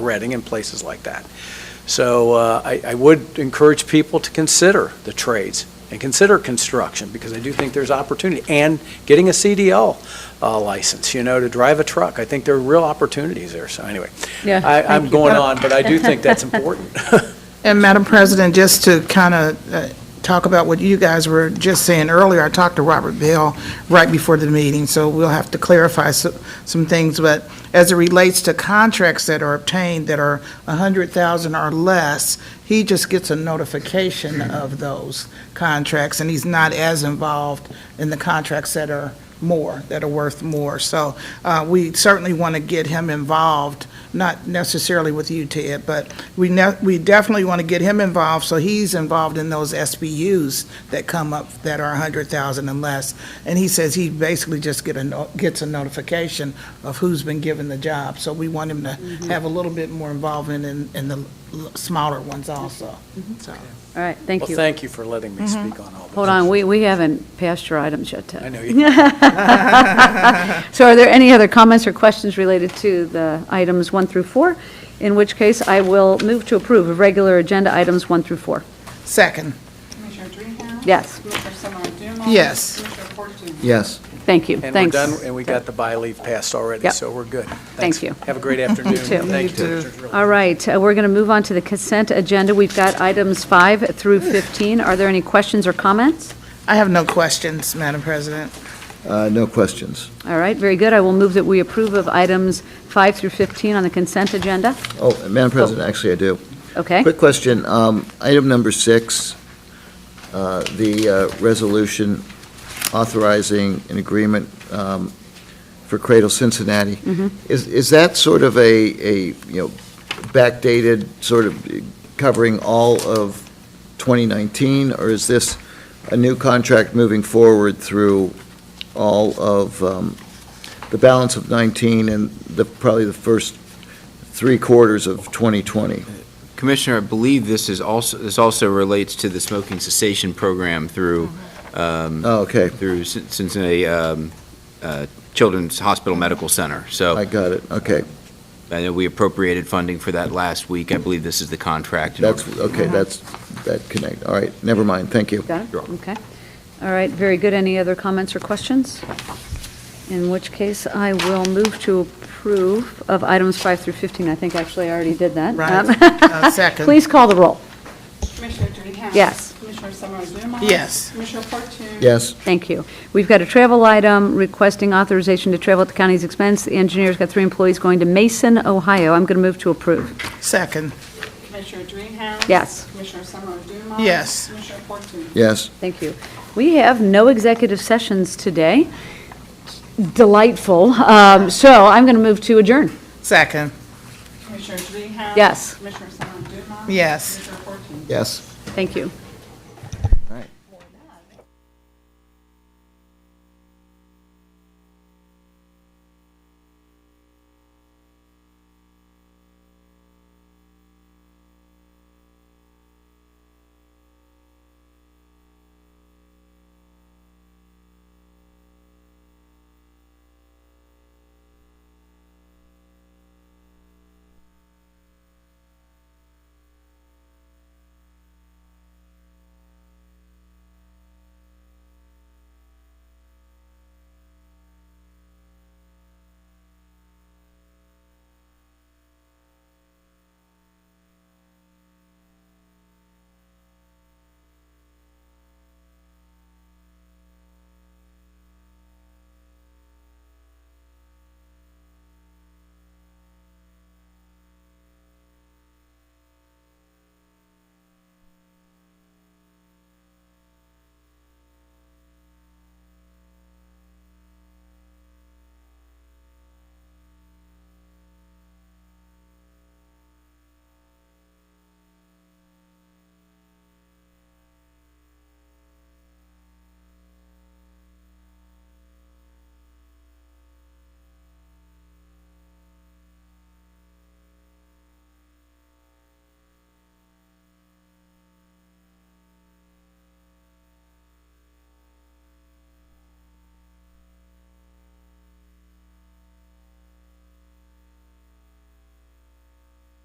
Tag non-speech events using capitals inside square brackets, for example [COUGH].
Reading and places like that. So uh, I I would encourage people to consider the trades and consider construction, because I do think there's opportunity, and getting a CDL uh, license, you know, to drive a truck. I think there are real opportunities there, so anyway. Yeah, I- I'm thank you. going on, but I do think [LAUGHS] that's important. And Madam President, just to kind of talk about what you guys were just saying earlier, I talked to Robert Bell right before the meeting, so we'll have to clarify so- some things. But as it relates to contracts that are obtained that are 100,000 or less, he just gets a notification of those contracts, and he's not as involved in the contracts that are more, that are worth more. So uh, we certainly want to get him involved, not necessarily with you, Ted, but we ne- we definitely want to get him involved, so he's involved in those SBUs that come up that are 100,000 and less. And he says he basically just get a, no- gets a notification of who's been given the job. So we want him to Mm-hmm. have a little bit more involvement in, in the l- smaller ones also, Mm-hmm. so. All right, thank Well, you. Mm-hmm. thank you for letting me speak on all this. Hold on, we, we haven't passed your items yet, I Ted. [LAUGHS] know you, So are there any other comments or questions related to the items one through four? In which case, I will move to approve of regular agenda items one through four. Second, Commissioner Dreehouse? Yes. Commissioner Summer Dumas? Yes. Commissioner Fortune? Yes. Thank you, and we're thanks. done, and we got the by leave passed already, Yep. so we're good. Thank Thanks. [LAUGHS] you. Have a great afternoon. too. Thank You you. too. All right, uh, we're going to move on to the consent agenda. We've got items five through 15. Are there any questions or comments? I have no questions, Madam President. Uh, No questions. All right, very good. I will move that we approve of items five through 15 on the consent agenda. Oh, and Madam President, actually, I do. Okay? Quick question. Um, Item number six, uh, the uh, resolution authorizing an agreement um, for Cradle Cincinnati. Is is that sort of a, a, you know, backdated, sort of covering all of 2019? Or is this a new contract moving forward through all of um, the balance of 19 and the, probably the first three quarters of 2020? Commissioner, I believe this is also, this also relates to the smoking cessation program through, um, Oh, okay. through Cin- Cincinnati um, uh, Children's Hospital Medical Center. I So got it, okay. I know we appropriated funding for that last week. I believe this is the contract. in That's, order- okay, that's, that connect, all right, never mind, thank you. Got it? You're welcome. Okay. All right, very good. Any other comments or questions? In which case, I will move to approve of items five through 15. I think actually I already did that. Right. [LAUGHS] Um, [LAUGHS] Uh, Second. Please call the roll. Commissioner Dreehouse? Yes. Commissioner Summer Dumas? Yes. Commissioner Fortune? Yes, Thank you. We've got a travel item requesting authorization to travel at the county's expense. The engineer's got three employees going to Mason, Ohio. I'm going to move to approve. Second, Commissioner Dreehouse? Yes. Commissioner Summer Dumas? Yes. Commissioner Fortune? yes, Thank you. We have no executive sessions today. Delightful. Um, So I'm going to move to adjourn. second, Commissioner Dreehouse? Yes. Commissioner Summer Dumas? Yes. Commissioner Fortune? yes. Thank you.